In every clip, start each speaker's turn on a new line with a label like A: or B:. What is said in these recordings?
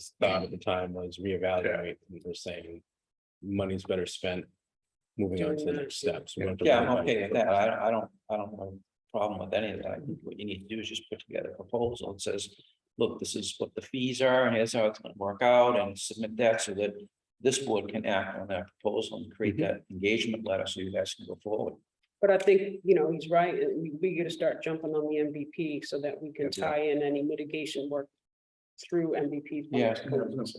A: was thought at the time was reevaluate, we were saying. Money's better spent. Moving on to the next steps. We don't have to
B: Yeah,
A: worry
B: I'm
A: about
B: okay
A: it.
B: with that. I, I don't, I don't have a problem with any of that. I think What you need to do is just put together a proposal that says, look, this is what the fees are and here's how it's gonna work out and submit that so that this board can act on that proposal and create that engagement letter so you guys can go forward.
C: But I think, you know, he's right, and we, we gotta start jumping on the MVP so that we can
B: Yeah.
C: tie in any mitigation work through MVP. 's
B: Yeah.
C: funds.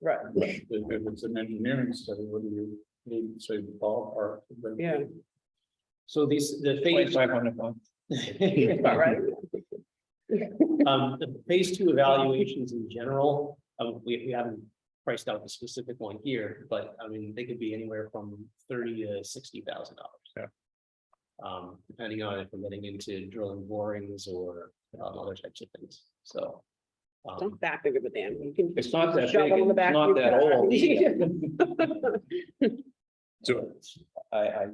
C: Right,
D: If if it's an engineering study, what do you need, say, the ballpark? but-
C: yeah,
E: So these, the phase,
B: Twenty-five hundred bucks.
C: all right,
E: um, the phase two evaluations in general, uh, we, we haven't priced out the specific one here, but I mean, they could be anywhere from thirty to sixty thousand dollars.
D: Yeah.
E: Um, depending on if we're getting into drilling borings or um, other types of things, so. um,
C: not that big of a dam, you can.
B: It's not that big,
C: shove it in the
B: it's
C: back,
B: not
C: you've
B: that
C: got-
B: old.
D: So-
B: I, I.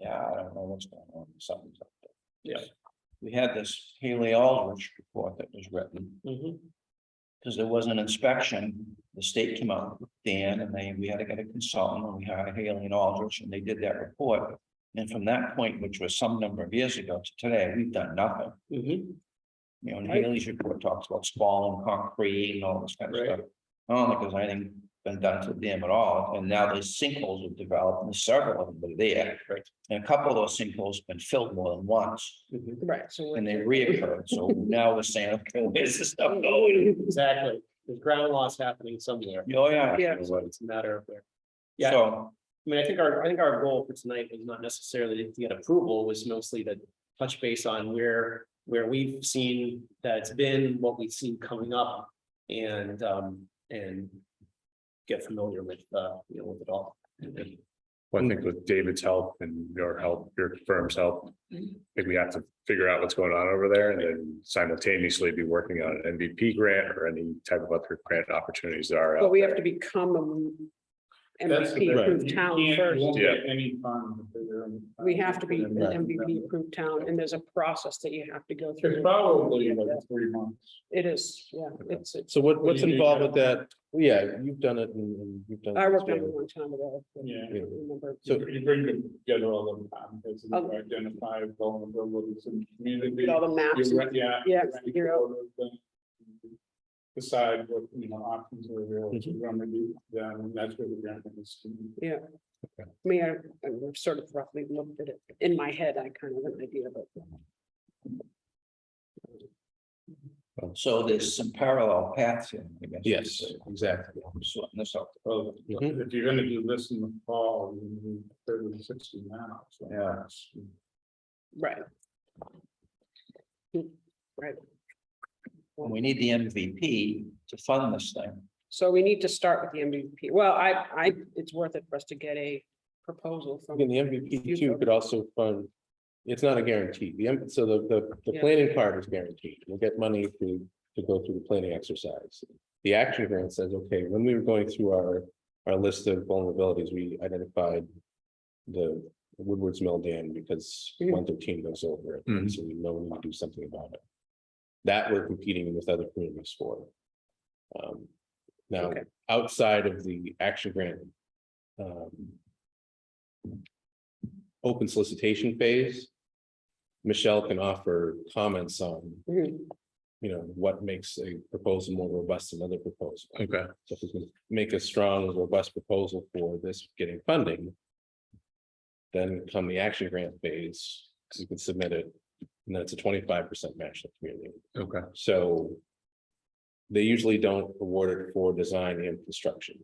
B: Yeah, I don't know what's going on, something's up there.
E: Yeah.
B: We had this Haley Aldrich report that was written.
E: mhm,
B: Because there was an inspection, the state came out with Dan and they, we had to get a consultant and we hired Haley and Aldrich and they did that report. And from that point, which was some number of years ago to today, we've done nothing.
E: mhm.
B: You know, and
C: Right.
B: Haley's report talks about spalling concrete and all this kind of
E: Right.
B: stuff. I don't think there's anything been done to them at all. And now there's sinkholes have developed and several of them are there.
E: Right.
B: And a couple of those sinkholes have been filled more than once
E: mhm.
C: Right, so.
B: and they reoccurred. So now we're saying, okay, where's this stuff going?
E: Exactly, there's ground loss happening somewhere,
B: Oh, yeah.
C: Yeah.
E: so it's a matter of where. Yeah.
B: So,
E: I mean, I think our, I think our goal for tonight was not necessarily to get approval, was mostly to touch base on where, where we've seen that it's been, what we've seen coming up. And, um, and get familiar with, uh, you know, with it all.
D: Well,
C: Mm.
D: I think with David's help and your help, your firm's help, I
C: Mm-hmm.
D: think we have to figure out what's going on over there and then simultaneously be working on an MVP grant or any type of other grant opportunities that are
C: But
D: out.
C: we have to become a
D: That's the
C: MVP
D: thing.
C: E approved
D: You
C: town
D: can't- you
C: first.
D: won't get
F: Any fund. if they're in-
C: We have to be an
F: Right.
C: MVP approved town, and there's a process that you have to go
F: It's
C: through.
F: probably like three months.
C: It is, yeah, it's, it's,
A: So what, what's
F: do you do
A: involved
F: now?
A: with that? Yeah, you've done it and and you've done.
C: I
A: it.
C: worked on it a long time ago. I
F: Yeah.
C: don't remember.
A: So-
F: You bring together all the time, because you
C: Oh.
F: identify vulnerabilities in the community.
C: All the maps,
F: You, re- yeah.
C: Yeah,
F: you rank
C: you're-
F: all of them. Decide what, you know, options are available to remedy them, and that's where the grant is.
C: I mean, I, I sort of roughly looked at it, in my head, I kind of have an idea, but
B: so there's some parallel paths here, I guess.
A: Yes, exactly.
B: I'm sorting this out.
F: Well,
A: Mhm.
F: If you're gonna do this in the fall, you need thirty to sixty now, so.
B: Yeah.
C: Right. Right,
B: And we need the MVP to fund this thing.
C: so we need to start with the MVP. Well, I, I, it's worth it for us to get a proposal from.
A: Again, the MVP too could also fund. It's not a guarantee. The, M- so the, the, the
C: Yeah.
A: planning part is guaranteed. We'll get money to, to go through the planning exercise. The action grant says, okay, when we were going through our, our list of vulnerabilities, we identified. The Woodward's Mill Dam because
C: Mhm.
A: one thirteen goes over it, and so we know we need to do something about it. That we're competing with other communities for. Um, now,
C: Okay.
A: outside of the action grant. Um. Open solicitation phase. Michelle can offer comments on,
C: Mhm.
A: you know, what makes a proposal more robust than other proposal.
D: Okay,
A: So if we can make a strong, robust proposal for this getting funding. Then come the action grant phase, you can submit it, and then it's a twenty-five percent match to the community,
D: okay.
A: so. They usually don't award it for design and construction.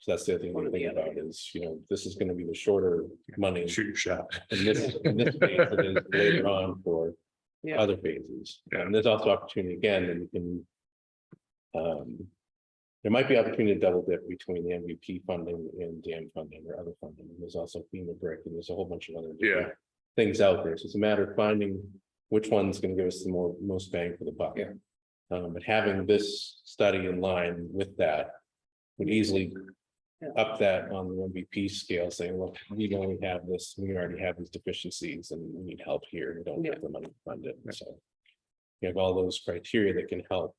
A: So that's the other thing
C: One
A: to
C: or the
A: think
C: other.
A: about is, you know, this is gonna be the shorter money.
D: Shoot your shot.
A: And this, and this phase it is later on for
C: Yeah.
A: other phases. And there's also opportunity again, that you can. Um. There might be opportunity to double dip between the MVP funding and dam funding or other funding. There's also FEMA brick and there's a whole bunch of other. different
D: Yeah.
A: Things out there. So it's a matter of finding which one's gonna give us the more, most bang for the buck.
B: Yeah.
A: Um, but having this study in line with that. Would easily
C: Yeah.
A: up that on the MVP scale, saying, look, we only have this, we already have these deficiencies and we need help here, we don't have the money to fund it, so. You have all those criteria that can help